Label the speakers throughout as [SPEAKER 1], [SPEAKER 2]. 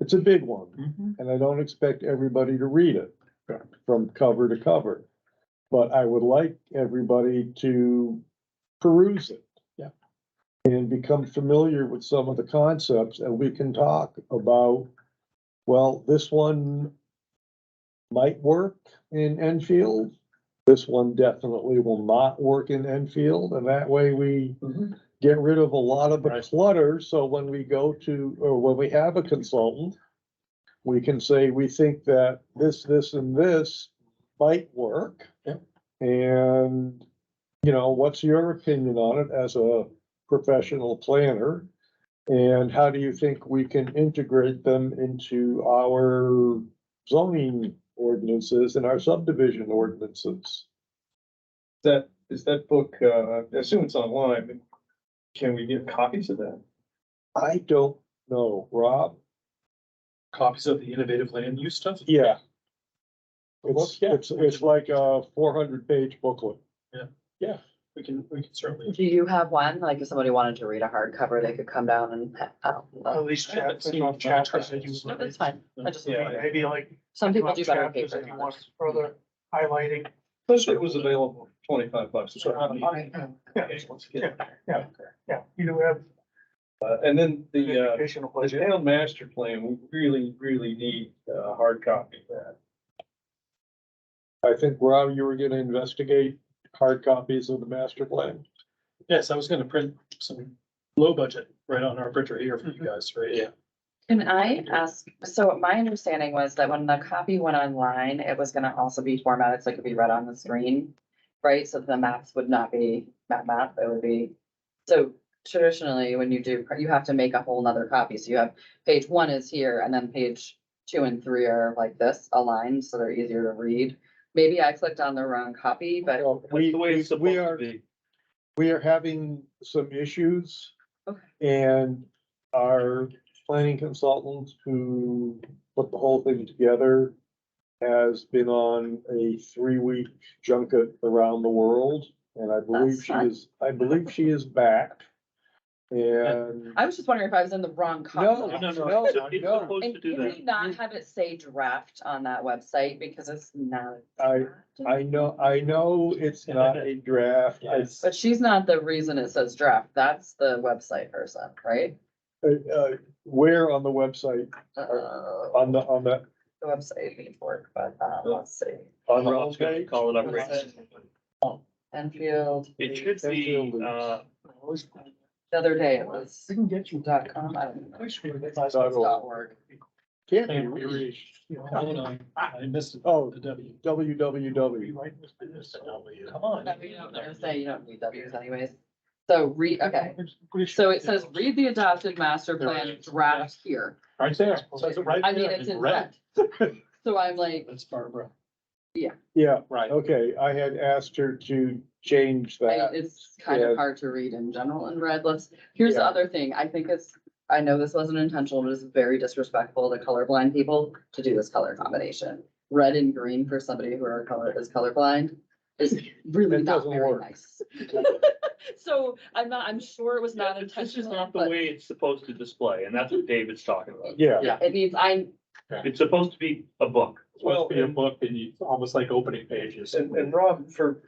[SPEAKER 1] It's a big one,
[SPEAKER 2] Mm-hmm.
[SPEAKER 3] Mhm.
[SPEAKER 1] and I don't expect everybody to read it
[SPEAKER 3] Correct.
[SPEAKER 1] from cover to cover. But I would like everybody to peruse it.
[SPEAKER 3] Yeah.
[SPEAKER 1] And become familiar with some of the concepts, and we can talk about, well, this one might work in Enfield. This one definitely will not work in Enfield, and that way we
[SPEAKER 4] Mm-hmm.
[SPEAKER 3] Mhm.
[SPEAKER 1] get rid of a lot of the
[SPEAKER 3] Right.
[SPEAKER 1] clutter, so when we go to, or when we have a consultant, we can say, we think that this, this, and this might work.
[SPEAKER 3] Yep.
[SPEAKER 1] And, you know, what's your opinion on it as a professional planner? And how do you think we can integrate them into our zoning ordinances and our subdivision ordinances?
[SPEAKER 4] That, is that book, uh, I assume it's online, but can we get copies of that?
[SPEAKER 1] I don't know, Rob.
[SPEAKER 3] Copies of the innovative land use stuff?
[SPEAKER 1] Yeah.
[SPEAKER 3] Well,
[SPEAKER 1] It's,
[SPEAKER 3] yeah.
[SPEAKER 1] it's, it's like a four hundred page booklet.
[SPEAKER 3] We can, we can certainly.
[SPEAKER 2] Do you have one? Like if somebody wanted to read a hardcover, they could come down and. ha- oh, well,
[SPEAKER 5] least
[SPEAKER 3] I haven't seen
[SPEAKER 5] on
[SPEAKER 3] chapters that you-
[SPEAKER 2] No, that's fine. I just,
[SPEAKER 4] Yeah.
[SPEAKER 5] Maybe like.
[SPEAKER 2] some people do better on
[SPEAKER 5] chapters
[SPEAKER 2] paper.
[SPEAKER 5] If you
[SPEAKER 2] than
[SPEAKER 5] want
[SPEAKER 2] others.
[SPEAKER 5] further highlighting.
[SPEAKER 4] Plus, it was available for twenty-five bucks. so I don't need-
[SPEAKER 5] Yeah,
[SPEAKER 4] Okay, let's get it.
[SPEAKER 5] Yeah. yeah, you do have
[SPEAKER 4] Uh, and then the, uh,
[SPEAKER 5] educational
[SPEAKER 4] the
[SPEAKER 5] pleasure.
[SPEAKER 4] town master plan, we really, really need a hard copy of that.
[SPEAKER 1] I think, Rob, you were gonna investigate hard copies of the master plan.
[SPEAKER 3] Yes, I was gonna print some low budget right on our printer here for you
[SPEAKER 4] Mm-hmm.
[SPEAKER 3] guys, right? Yeah.
[SPEAKER 2] Can I ask, so my understanding was that when the copy went online, it was gonna also be formatted so it could be read on the screen. Right? So the maps would not be map map, it would be, so traditionally, when you do, you have to make a whole nother copy. So you have page one is here and then page two and three are like this aligned, so they're easier to read. Maybe I clicked on the wrong copy, but,
[SPEAKER 1] Uh, We, we we are, we are having some issues.
[SPEAKER 2] Okay.
[SPEAKER 1] And our planning consultant who put the whole thing together has been on a three-week junket around the world. And I believe
[SPEAKER 2] That's
[SPEAKER 1] she
[SPEAKER 2] fun.
[SPEAKER 1] is, I believe she is back. And.
[SPEAKER 2] I was just wondering if I was in the wrong
[SPEAKER 1] No,
[SPEAKER 2] copy.
[SPEAKER 1] no, no, no.
[SPEAKER 2] And can we not have it say draft on that website because it's not.
[SPEAKER 1] I- I know, I know it's not a draft. I,
[SPEAKER 3] Yes.
[SPEAKER 2] But she's not the reason it says draft. That's the website person, right?
[SPEAKER 1] uh, where on the website,
[SPEAKER 2] Uh, the
[SPEAKER 1] on the, on the,
[SPEAKER 2] website needs work, but, um,
[SPEAKER 1] Oh.
[SPEAKER 2] let's see.
[SPEAKER 1] on the homepage?
[SPEAKER 4] Call it up.
[SPEAKER 2] Enfield,
[SPEAKER 5] It should
[SPEAKER 1] be, uh,
[SPEAKER 2] the other day it was
[SPEAKER 5] can get you
[SPEAKER 2] dot com, I don't know.
[SPEAKER 1] Dot
[SPEAKER 2] It's Dot org.
[SPEAKER 1] Can't be reached.
[SPEAKER 3] Oh, no, I missed it.
[SPEAKER 1] Oh,
[SPEAKER 3] The W.
[SPEAKER 1] www.
[SPEAKER 3] Come on.
[SPEAKER 2] No, you don't- they're gonna say you don't need W's anyways. So read, okay, so it says read the adopted master plan draft here.
[SPEAKER 3] Right there. Says it right
[SPEAKER 2] I mean,
[SPEAKER 3] there
[SPEAKER 2] it's in
[SPEAKER 3] red.
[SPEAKER 2] red. So I'm like,
[SPEAKER 3] That's Barbara.
[SPEAKER 1] Yeah,
[SPEAKER 3] Right.
[SPEAKER 1] okay, I had asked her to change
[SPEAKER 2] I-
[SPEAKER 1] that.
[SPEAKER 2] It's kind
[SPEAKER 1] Yeah.
[SPEAKER 2] of hard to read in general in red. Let's, here's the
[SPEAKER 1] Yeah.
[SPEAKER 2] other thing. I think it's, I know this wasn't intentional, but it's very disrespectful to colorblind people to do this color combination. Red and green for somebody who are color, is colorblind is really
[SPEAKER 1] That
[SPEAKER 2] not
[SPEAKER 1] doesn't
[SPEAKER 2] very
[SPEAKER 1] work.
[SPEAKER 2] nice. So I'm not, I'm sure it was not
[SPEAKER 6] This is
[SPEAKER 2] intentional,
[SPEAKER 6] not the
[SPEAKER 2] but
[SPEAKER 6] way it's supposed to display, and that's what David's talking about.
[SPEAKER 1] Yeah,
[SPEAKER 2] yeah, it needs, I,
[SPEAKER 6] It's supposed to be a book.
[SPEAKER 4] Well,
[SPEAKER 3] Be a book and you, almost like opening pages.
[SPEAKER 4] and, and Rob, for,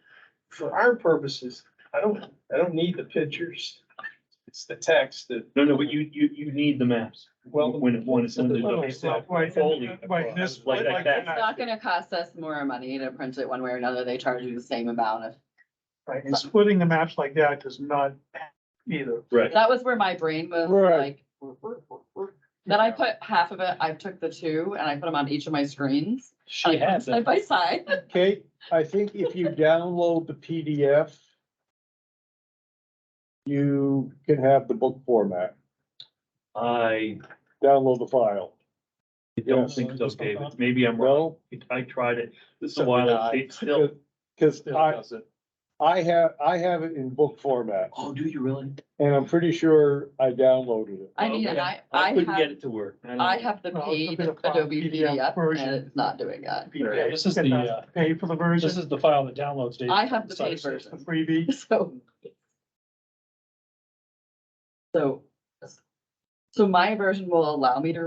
[SPEAKER 4] for our purposes, I don't, I don't need the pictures. It's the text that,
[SPEAKER 6] No, no, but you, you, you need the maps.
[SPEAKER 4] Well-
[SPEAKER 6] When, it- when it's. under the-
[SPEAKER 5] Right,
[SPEAKER 6] Foley.
[SPEAKER 5] and- right, this-
[SPEAKER 6] Like
[SPEAKER 5] like
[SPEAKER 6] that.
[SPEAKER 2] it's not gonna cost us more money to print it one way or another. They charge you the same amount of
[SPEAKER 5] Right, and splitting the maps like that does not either.
[SPEAKER 6] Right.
[SPEAKER 2] That was where my brain was
[SPEAKER 1] Right.
[SPEAKER 2] like. Then I put half of it, I took the two and I put them on each of my screens.
[SPEAKER 3] She
[SPEAKER 2] like,
[SPEAKER 3] has
[SPEAKER 2] Side
[SPEAKER 3] it.
[SPEAKER 2] by side.
[SPEAKER 1] Kate, I think if you download the PDF, you can have the book format,
[SPEAKER 6] I
[SPEAKER 1] download the file.
[SPEAKER 6] don't
[SPEAKER 1] Yes.
[SPEAKER 6] think so, David. Maybe I'm wrong.
[SPEAKER 1] No,
[SPEAKER 6] I tried it. This is
[SPEAKER 3] So
[SPEAKER 6] a while,
[SPEAKER 3] did I.
[SPEAKER 6] ago. it's still,
[SPEAKER 1] because
[SPEAKER 3] Still
[SPEAKER 1] I,
[SPEAKER 3] does it.
[SPEAKER 1] I have, I have it in book format,
[SPEAKER 6] oh, do you really?
[SPEAKER 1] and I'm pretty sure I downloaded it.
[SPEAKER 2] I mean, and I, I
[SPEAKER 6] I couldn't get
[SPEAKER 2] have,
[SPEAKER 6] it to work. don't
[SPEAKER 2] I
[SPEAKER 6] know.
[SPEAKER 2] have the
[SPEAKER 5] Well, it's a
[SPEAKER 2] paid
[SPEAKER 5] bit of file
[SPEAKER 2] Adobe
[SPEAKER 5] PDF
[SPEAKER 2] PDF
[SPEAKER 5] version.
[SPEAKER 2] and it's not doing that.
[SPEAKER 3] Yeah, this is
[SPEAKER 5] Get
[SPEAKER 3] the,
[SPEAKER 5] that,
[SPEAKER 3] uh,
[SPEAKER 5] Pay for the
[SPEAKER 3] This
[SPEAKER 5] version,
[SPEAKER 3] is the file that downloads data.
[SPEAKER 2] I have the
[SPEAKER 3] So-
[SPEAKER 2] paid
[SPEAKER 5] the
[SPEAKER 2] version,
[SPEAKER 5] freebie.
[SPEAKER 2] so. So. So my version will allow me to